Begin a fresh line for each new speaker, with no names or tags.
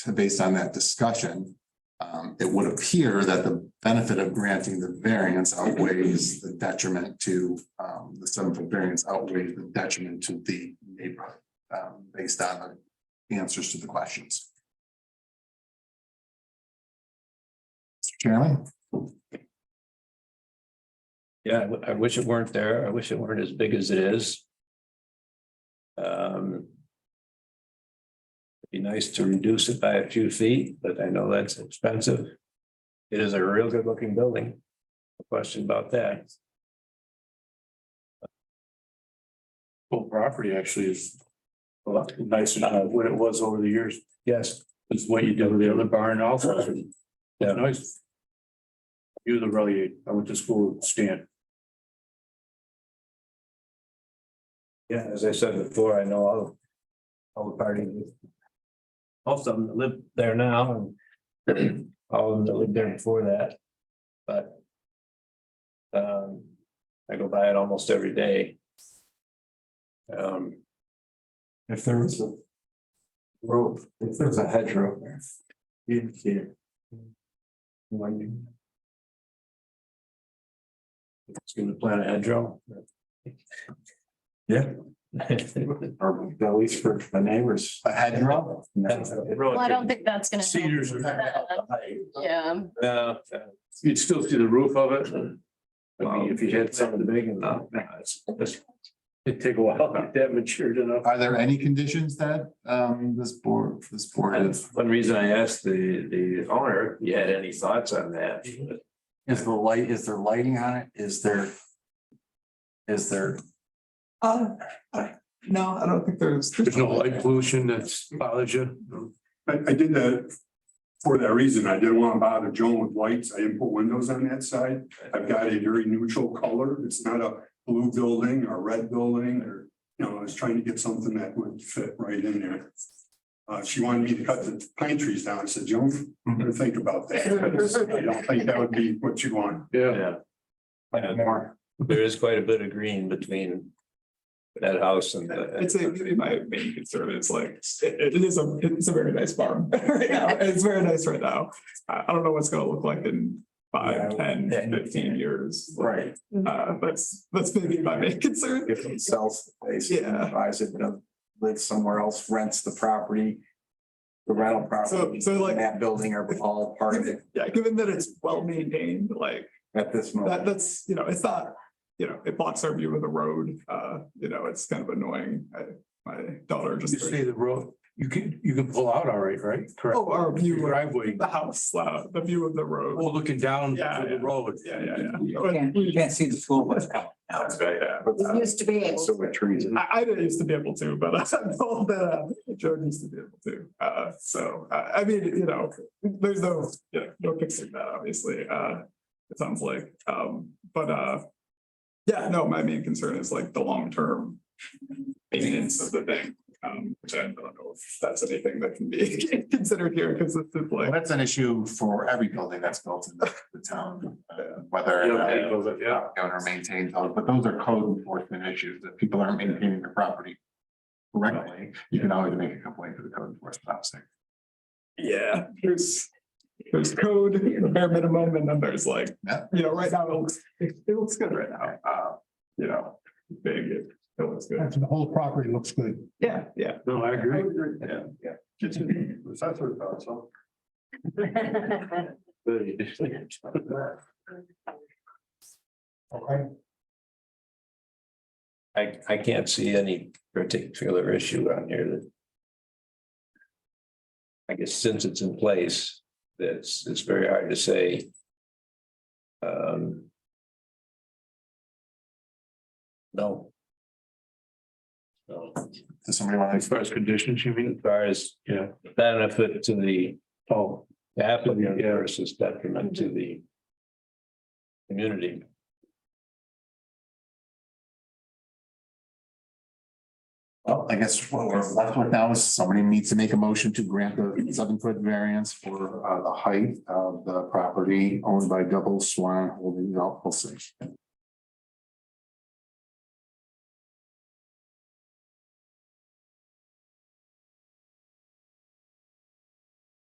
to- based on that discussion, um, it would appear that the benefit of granting the variance outweighs the detriment to, um, the seven foot variance outweighs the detriment to the neighborhood, um, based on the answers to the questions. Mr. Chairman,
Yeah, I w- I wish it weren't there. I wish it weren't as big as it is. Um. it'd Be nice to reduce it by a few feet, but I know that's expensive. It is a real good looking building. No Question about that.
Whole property actually is a lot nicer than what it was over the years.
Yes,
It's what you did with the other barn also.
Yeah.
Yeah, nice. You're the really, I went to school with Stan.
yeah, as I said before, I know all. All the parties. Most of them that live there now and all of them that lived there before that, but. Um, I go by it almost every day. Um.
If there was a rope, if there was a hedgerow there, you'd see it. Winding.
It's gonna plant a hedgerow.
Yeah.
Well,
or at least for the neighbors.
a head roll?
Well, I don't think that's gonna. help.
Cedars are,
Yeah,
No, uh,
you'd still see the roof of it. I mean, if you had something
big enough.
No, no, it's- it's- It'd take a while to get that matured enough.
Are there any conditions that, um, this board, this board
And
is?
one reason I asked the, the owner, if you had any thoughts on that?
Is the light, is there lighting on it? Is there? Is there? Uh, I, no, I don't think there's.
There's no light pollution that's bothers you.
I, I did that for that reason. I didn't want to bother Joan with lights. I didn't put windows on that side. I've got a very neutral color. It's not a blue building or a red building or, you know, I was trying to get something that would fit right in there. Uh, she wanted me to cut the pine trees down. I said, Joan, I'm gonna think about that. I don't think that would be what you want.
Yeah,
Yeah. There is quite a bit of green between that house and the.
I'd say maybe my main concern is like, it it is a, it's a very nice farm right now. It's very nice right now. I, I don't know what's gonna look like in five, ten, fifteen years.
Right,
Uh, that's, that's maybe my main concern.
if it sells, the place,
Yeah.
buys it, but lives somewhere else, rents the property. The rental property.
So- so like-
and That building are all part of it
Yeah, given that it's well maintained, like
at this
that,
moment.
that's, you know, it's not, you know, it blocks our view of the road. Uh, you know, it's kind of annoying. I, my daughter
you
just.
say the road, you can, you can pull out all right, right? Correct.
Oh, our
Your
view, of
driveway,
the house, uh, the view of the road.
well, looking down
Yeah,
to the
yeah.
road.
Yeah, yeah, yeah.
You can't see the school bus coming.
That's right.
Yeah.
It used to be. So with trees.
I, I didn't used to be able to, but I'm told that uh, Jordan used to be able to. Uh, so, uh, I mean, you know, there's no, you know, no fixing that, obviously, uh, it sounds like, um, but, uh, yeah, no, my main concern is like the long-term maintenance of the thing, um, which I don't know if that's anything that can be considered here, because this is
Well,
like,
that's an issue for every building that's built in the the town, uh, whether.
Yeah, because, yeah.
owner maintains those, but those are code enforcement issues that people aren't maintaining their property correctly. You can always make a complaint to the code enforcement officer.
yeah, there's, there's code, the bare minimum, and then there's like,
Yeah.
you know, right now, it looks, it it looks good right now, uh, you know, big, it it looks good.
The whole property looks good.
Yeah, yeah.
No, I agree.
Yeah.
That's what I thought, so.
I, I can't see any particular issue on here that. I guess since it's in place, that's, it's very hard to say. Um. No. No,
Does somebody want
As
to,
far as conditions, you
as
mean?
far as
Yeah.
benefit to the
Oh,
applicant versus detriment to the. Community.
well, I guess what we're left with now is somebody needs to make a motion to grant the seven foot variance for uh the height of the property owned by Double Swan Holdings LLC.